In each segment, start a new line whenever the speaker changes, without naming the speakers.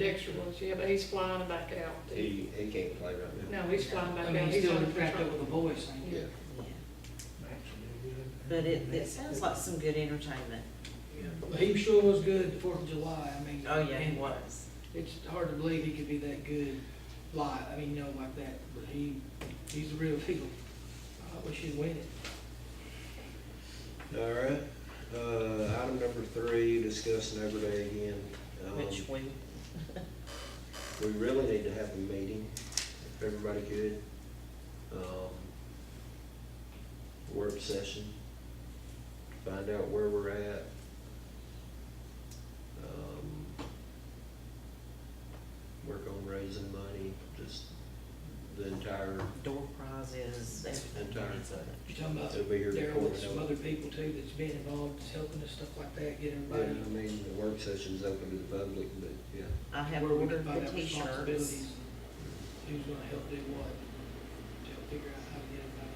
extra ones, yeah, but he's flying back out.
He, he can't play right now.
No, he's flying back
I
out.
mean, he's
He's
still
under
trapped
control.
over the boys thing.
Yeah,
But it, it sounds like some good entertainment.
But he sure was good the Fourth of July, I mean.
Oh, yeah, he
and
was.
It's hard to believe he could be that good live, I mean, you know, like that, but he, he's the real deal. I wish he'd win it.
all right. Uh, item number three, discuss an overlay again. Um,
Which we,
We really need to have a meeting, if everybody could. Um, Work session, find out where we're at. Um, Work on raising money, just the entire,
door prize is everything.
Entire
It's
thing.
a-
You're talking about
They'll be here
Daryl
before
with
we
some
know it.
other people too that's been involved, that's helping us, stuff like that, get
yeah,
everybody.
I mean, the work session's open to the public, but, yeah.
I have
where we
ordered
divide
the
up
t-shirts.
responsibilities, Who's gonna help do what, to help figure out how to get everybody,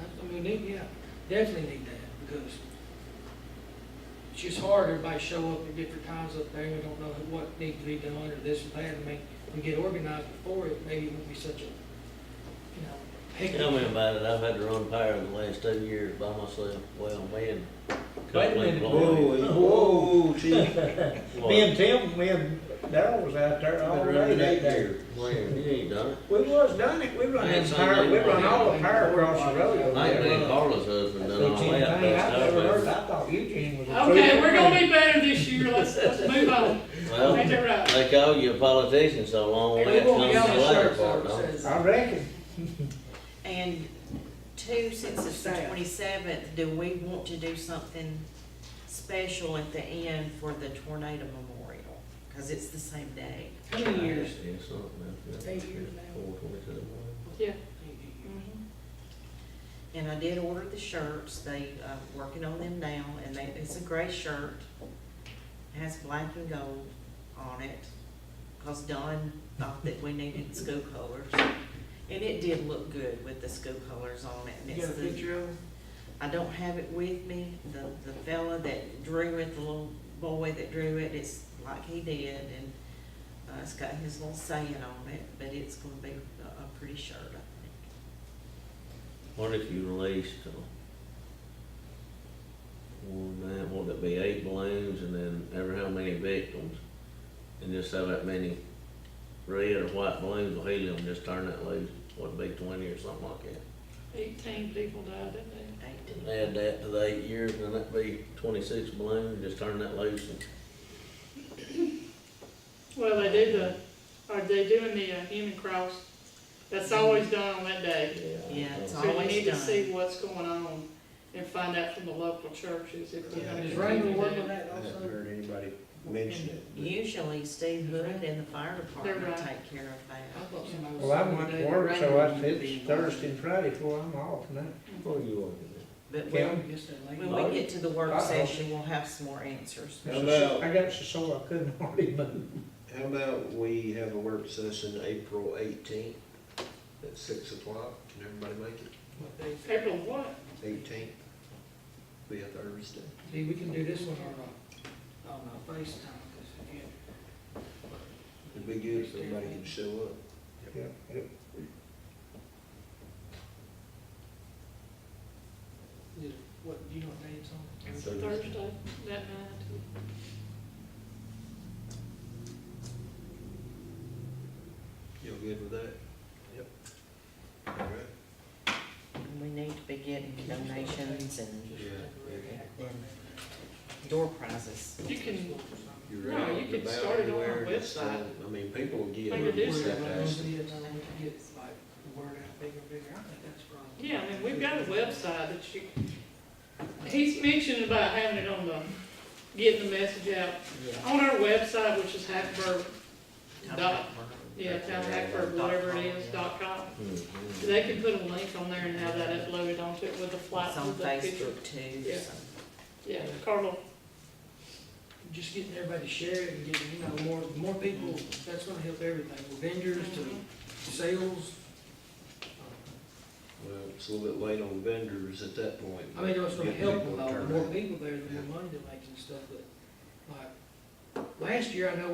I, I mean, need- yeah, definitely need that, because it's just hard, everybody show up at different times up there, and we don't know who- what needs to be done, or this and that, I mean, we get organized before it, maybe it won't be such a, you know, hectic.
Tell me about it, I've had to run power in the last two years by myself, well, me and.
Wait a minute.
Lloyd.
whoa, chief.
Me and Tim, me and Daryl was out there all
Been
day
running
that
eight
day.
years. Man, you ain't done it.
We was done it, we run
Yeah,
in
so
power,
they-
we run all the power across the road over
I ain't been
there.
Carla's husband,
That's
done
the
all
thing,
that,
I've never heard,
that's
I thought Eugene was. a
Okay,
fool.
we're gonna be better this year, let's, let's move on.
Well,
Ain't that right?
they call you a politician so long, when
They
that
won't
comes
be on
to
the
the latter
shirts,
part,
though,
don't
it
it?
says.
I reckon,
And two, since it's the
Staff.
twenty-seventh, do we want to do something special at the end for the tornado memorial? Cause it's the same day.
How many years?
It's something, that's-
Eight years now.
Four twenty-seven.
Yeah,
Mm-hmm. And I did order the shirts, they, uh, working on them now, and they, it's a gray shirt. It Has black and gold on it, cause Don thought that we needed school colors. And it did look good with the school colors on it, and
You got
it's
a
the,
picture of them?
I don't have it with me, the, the fella that drew it, the little boy that drew it, it's like he did, and, uh, it's got his little saying on it, but it's gonna be a, a pretty shirt, I think.
What if you released, uh, one man, what would it be, eight balloons and then ever how many victims? And just have that many red or white balloons with helium, just turn that loose, what would it be twenty or something like that?
eighteen people died, didn't they?
Eighteen.
Add that to the eight years, and then that'd be twenty-six balloons, just turn that loose and
Well, they do the, are they doing the uh, human cross? That's always done on that day.
Yeah, it's
So you
Always
need to
done.
see what's going on and find out from the local churches if they're
Yeah,
gonna
Is
continue
Raymond
to
working
do
on
it.
that
I haven't
also?
heard anybody mention it. but-
Usually Steve Hood and the fire department
They're right.
take care of
I
that.
thought somebody was
well, I'm
saying
at
today that
work, so
Raymond
I,
would be
it's
involved.
Thursday and Friday before I'm off now.
What are you on?
But
Well,
when,
I guess that lady-
when we get to the work
Uh-oh.
session, we'll have some more answers.
How about-
I got so sore I couldn't hardly move.
How about we have a work session April eighteenth at six o'clock? Can everybody make it?
what they-
April what?
Eighteenth, be a Thursday.
See, we can do this one on, a- on a FaceTime, because if you,
It'd be good if everybody could show up.
Yeah, yeah.
you- what, you don't need some?
It's
Thursday.
Thursday, that night.
You all good with that? Yep. All right.
We need to be getting donations and
Yeah.
then door prizes.
You can,
You're
No,
out
you
and
could
about
start it on our
everywhere, just, uh,
website.
I mean, people will get
Like you
it.
do
You just have to
Whatever it
ask
is,
them.
I mean, to get like the word out bigger, and bigger, I think that's probably.
yeah, I mean, we've got a website that you, he's mentioned about having it on the, getting the message out.
Yeah.
On our website, which is Hackberg,
Town
dot,
hall.
yeah, town Hackberg, whatever it is, dot com.
Mhm.
They can put a link on there and have that uploaded onto it with a flat,
It's on
with the picture.
Facebook too,
Yeah.
so.
Yeah, Carla,
Just getting everybody to share it and getting, you know, more, more people, that's gonna help everything, from vendors
Mhm.
to sales. Uh,
Well, it's a little bit late on vendors at that point.
I mean, it's gonna
Get
help a
people to
lot, the
turn
more
out.
people there, the more money they're making and stuff, but, like, last year, I know